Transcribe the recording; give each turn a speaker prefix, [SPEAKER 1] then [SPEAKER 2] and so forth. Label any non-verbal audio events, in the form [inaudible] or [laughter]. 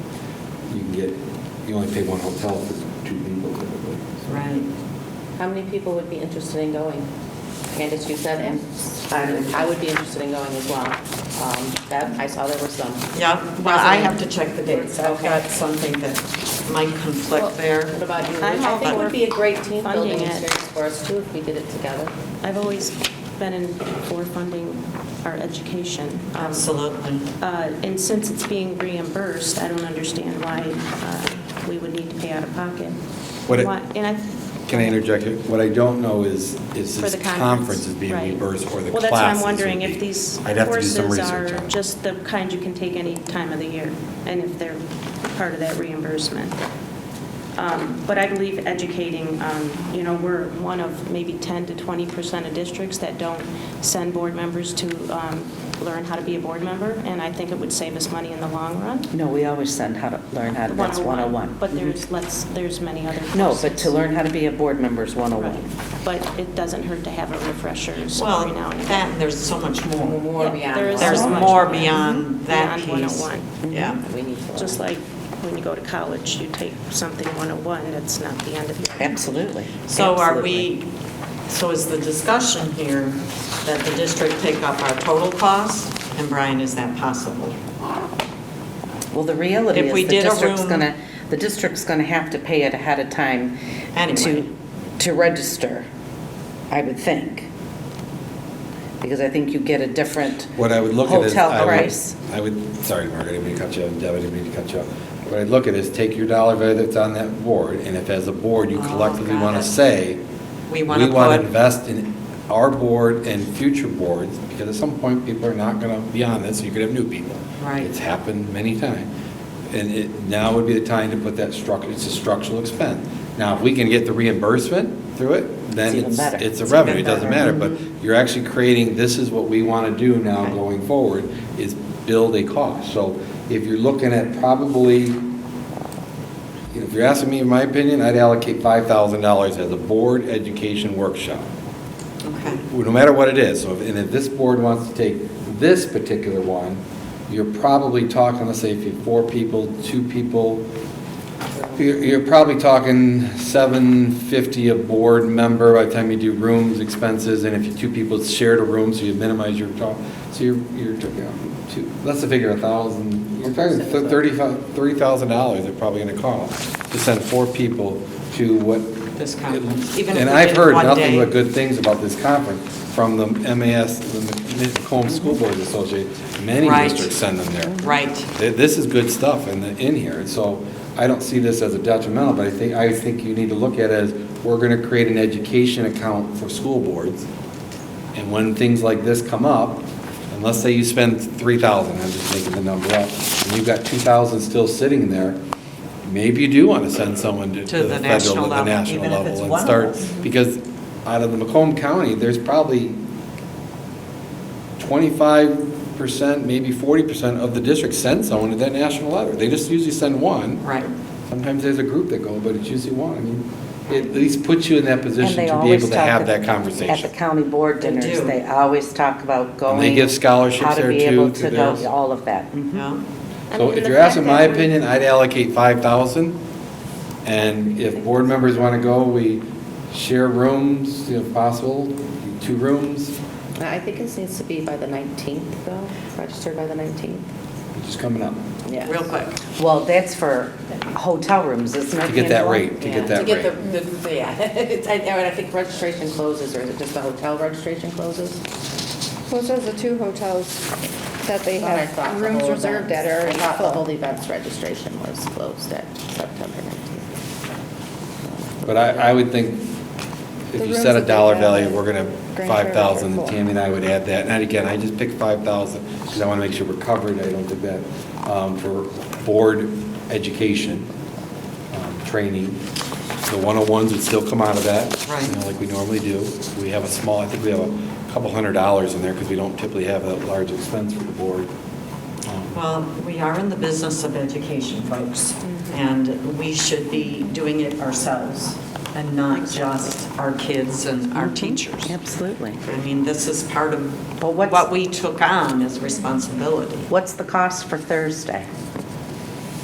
[SPEAKER 1] can get, you only pay one hotel for two people typically. so.
[SPEAKER 2] Right.
[SPEAKER 3] How many people would be interested in going? Candace, you said, and I would be interested in going as well. Um, Deb, I saw there were some.
[SPEAKER 2] Yeah, well, I have to
[SPEAKER 3] President.
[SPEAKER 2] check the dates. I've
[SPEAKER 3] Okay.
[SPEAKER 2] got something that might conflict
[SPEAKER 3] What
[SPEAKER 2] there.
[SPEAKER 3] about you?
[SPEAKER 4] I'm
[SPEAKER 3] I
[SPEAKER 4] all
[SPEAKER 3] think it would
[SPEAKER 4] for
[SPEAKER 3] be a great team building
[SPEAKER 4] funding it.
[SPEAKER 3] experience for us too if we did it together.
[SPEAKER 4] I've always been in for funding our education. Um,
[SPEAKER 2] Absolutely.
[SPEAKER 4] uh, And since it's being reimbursed, I don't understand why uh, we would need to pay out of pocket.
[SPEAKER 1] What it-
[SPEAKER 4] Why- and
[SPEAKER 1] Can I interject? here? What I don't know is, is
[SPEAKER 4] For
[SPEAKER 1] this
[SPEAKER 4] the conference.
[SPEAKER 1] conference is being
[SPEAKER 4] right.
[SPEAKER 1] reimbursed or the classes.
[SPEAKER 4] Well, that's what I'm
[SPEAKER 1] would
[SPEAKER 4] wondering,
[SPEAKER 1] be.
[SPEAKER 4] if these
[SPEAKER 1] I'd have to do
[SPEAKER 4] courses
[SPEAKER 1] some research
[SPEAKER 4] are
[SPEAKER 1] on it.
[SPEAKER 4] just the kind you can take any time of the year, and if they're part of that reimbursement. Um, But I believe educating, um, you know, we're one of maybe 10 to 20% of districts that don't send board members to um, learn how to be a board member, and I think it would save us money in the long run.
[SPEAKER 5] No, we always send how to learn how to, that's 101.
[SPEAKER 1] Mm-hmm.
[SPEAKER 4] But there's, let's, there's many other courses.
[SPEAKER 5] No, but to learn how to be a board member is
[SPEAKER 4] Right.
[SPEAKER 5] 101.
[SPEAKER 4] But it doesn't hurt to have a refresher
[SPEAKER 2] Well,
[SPEAKER 4] every now and
[SPEAKER 2] that,
[SPEAKER 4] again.
[SPEAKER 2] and there's so much more.
[SPEAKER 3] More
[SPEAKER 4] Yeah,
[SPEAKER 3] beyond.
[SPEAKER 4] there is
[SPEAKER 2] There's
[SPEAKER 4] so much
[SPEAKER 2] more Mm-hmm. beyond oh that piece.
[SPEAKER 4] Beyond 101.
[SPEAKER 2] Yeah.
[SPEAKER 3] We need to.
[SPEAKER 4] Just like when you go to college, you take something 101, that's not the end of your.
[SPEAKER 5] Absolutely.
[SPEAKER 2] So are
[SPEAKER 5] Absolutely.
[SPEAKER 2] we, so is the discussion here that the district take up our total cost? And Brian, is that possible?
[SPEAKER 5] Well, the reality
[SPEAKER 2] if
[SPEAKER 5] is
[SPEAKER 2] we
[SPEAKER 5] the
[SPEAKER 2] did a
[SPEAKER 5] district's
[SPEAKER 2] room-
[SPEAKER 5] going to, the district's going to have to pay it ahead of time
[SPEAKER 2] Anyway.
[SPEAKER 5] to, to register, I would think. Because I think you get a different
[SPEAKER 1] What I would look at is. I
[SPEAKER 5] hotel
[SPEAKER 1] would-
[SPEAKER 5] price.
[SPEAKER 1] I would, sorry, Margaret, I didn't mean to cut you off, Deb, I didn't mean to cut you off. What I'd look at is take your dollar value that's on that board, and if as a board you
[SPEAKER 2] Oh,
[SPEAKER 1] collectively
[SPEAKER 2] got
[SPEAKER 1] want
[SPEAKER 2] it.
[SPEAKER 1] to say,
[SPEAKER 2] We want to
[SPEAKER 1] We want to
[SPEAKER 2] put,
[SPEAKER 1] invest in our board and future boards, because at some point, people are not going to be on this, so you could have new people.
[SPEAKER 2] Right.
[SPEAKER 1] It's happened many times. And it, now would be the time to put that structure, it's a structural expense. Now, if we can get the reimbursement through it, then
[SPEAKER 5] It's even
[SPEAKER 1] it's,
[SPEAKER 5] better.
[SPEAKER 1] it's a
[SPEAKER 2] It's
[SPEAKER 1] revenue,
[SPEAKER 2] even
[SPEAKER 1] it doesn't
[SPEAKER 2] better.
[SPEAKER 1] matter. But you're actually creating, this is what we want to do now
[SPEAKER 2] Okay.
[SPEAKER 1] going forward, is build a cost. So if you're looking at probably you know, If you're asking me in my opinion, I'd allocate $5,000 as a board education workshop,
[SPEAKER 2] okay,
[SPEAKER 1] no matter what it is. So if, and if this board wants to take this particular one, you're probably talking, let's say, if you're four people, two people, you're, you're probably talking 750 a board member by the time you do rooms, expenses, and if you two people shared a room, so you minimize your, talk- so you're, you're, you know, two, let's figure a thousand, you're talking thir- 35 $30,000 they're probably gonna cost to send four people to what
[SPEAKER 2] this conference? even if
[SPEAKER 1] and
[SPEAKER 2] we
[SPEAKER 1] I've
[SPEAKER 2] did
[SPEAKER 1] heard
[SPEAKER 2] one
[SPEAKER 1] nothing
[SPEAKER 2] day.
[SPEAKER 1] but good things about this conference from the MAS, the Macomb School Boards Association. Many
[SPEAKER 2] Right.
[SPEAKER 1] districts send them there.
[SPEAKER 2] Right.
[SPEAKER 1] Th- This is good stuff in, the- in here, so I don't see this as a detrimental, but I think, I think you need to look at it as, we're gonna create an education account for school boards, and when things like this come up, and let's say you spend three thousand, I'm just making the number up, and you've got two thousand still sitting there, maybe you do wanna send someone to
[SPEAKER 2] To
[SPEAKER 1] to
[SPEAKER 2] the
[SPEAKER 1] the
[SPEAKER 2] national
[SPEAKER 1] federal, to the
[SPEAKER 2] level,
[SPEAKER 1] national
[SPEAKER 2] even if it's
[SPEAKER 1] level and
[SPEAKER 2] one of
[SPEAKER 1] start,
[SPEAKER 2] us.
[SPEAKER 1] because out of the Macomb County, there's probably twenty-five percent, maybe forty percent of the district send someone to that national letter. They just usually send one.
[SPEAKER 2] Right,
[SPEAKER 1] Sometimes there's a group that go, but it's usually one. I mean, it at least puts you in that
[SPEAKER 5] And
[SPEAKER 1] position
[SPEAKER 5] they
[SPEAKER 1] to be
[SPEAKER 5] always
[SPEAKER 1] able to
[SPEAKER 5] talk
[SPEAKER 1] have
[SPEAKER 5] at-
[SPEAKER 1] that conversation.
[SPEAKER 5] At the county board
[SPEAKER 2] They
[SPEAKER 5] dinners,
[SPEAKER 2] do.
[SPEAKER 5] they always talk about going.
[SPEAKER 1] And they give scholarships there,
[SPEAKER 5] How to
[SPEAKER 1] too,
[SPEAKER 5] be able
[SPEAKER 1] to
[SPEAKER 5] to
[SPEAKER 1] theirs.
[SPEAKER 5] go, all of that. Mhm.
[SPEAKER 2] yeah.
[SPEAKER 4] I
[SPEAKER 1] So
[SPEAKER 4] mean,
[SPEAKER 1] if
[SPEAKER 4] the
[SPEAKER 1] you're
[SPEAKER 4] fact
[SPEAKER 1] asking
[SPEAKER 4] that
[SPEAKER 1] my
[SPEAKER 4] we're-
[SPEAKER 1] opinion, I'd allocate 5,000. And if board members want to go, we share rooms if possible, two rooms,
[SPEAKER 3] I think this needs to be by the 19th though, registered by the 19th.
[SPEAKER 1] which is coming up,
[SPEAKER 3] Yeah.
[SPEAKER 2] real quick.
[SPEAKER 5] Well, that's for hotel rooms, isn't it?
[SPEAKER 1] to get that
[SPEAKER 5] Angela?
[SPEAKER 1] rate, to
[SPEAKER 3] Yeah,
[SPEAKER 1] get that
[SPEAKER 3] To
[SPEAKER 1] rate.
[SPEAKER 3] get the- the, yeah, [laughs] It's- I I think registration closes, or is it just the hotel registration closes?
[SPEAKER 6] Well, it says the two hotels that they
[SPEAKER 3] Thought I
[SPEAKER 6] have
[SPEAKER 3] thought the
[SPEAKER 6] rooms
[SPEAKER 3] whole
[SPEAKER 6] reserved at
[SPEAKER 3] events-
[SPEAKER 6] are
[SPEAKER 3] I
[SPEAKER 6] already
[SPEAKER 3] thought the whole
[SPEAKER 6] full.
[SPEAKER 3] events registration was closed at September 19th.
[SPEAKER 1] But I, I would think if
[SPEAKER 6] The
[SPEAKER 1] you
[SPEAKER 6] rooms
[SPEAKER 1] set
[SPEAKER 6] that
[SPEAKER 1] a
[SPEAKER 6] they
[SPEAKER 1] dollar
[SPEAKER 6] have
[SPEAKER 1] value,
[SPEAKER 6] at
[SPEAKER 1] we're going to,
[SPEAKER 6] Grand
[SPEAKER 1] 5,000,
[SPEAKER 6] Fair are full.
[SPEAKER 1] Tammy and I would add that. And again, I just picked 5,000 because I want to make sure we're covered, I don't think that, um, for board education, um, training. The 101s would still come out of that. You
[SPEAKER 2] Right.
[SPEAKER 1] know, like we normally do. We have a small, I think we have a couple hundred dollars in there because we don't typically have that large expense for the board. Um,
[SPEAKER 2] Well, we are in the business of education, folks, and we should be doing it ourselves and not just our kids and our teachers.
[SPEAKER 5] Mm-hmm. Absolutely.
[SPEAKER 2] I mean, this is part of
[SPEAKER 5] Well, what's-
[SPEAKER 2] what we took on as responsibility.
[SPEAKER 5] What's the cost for Thursday?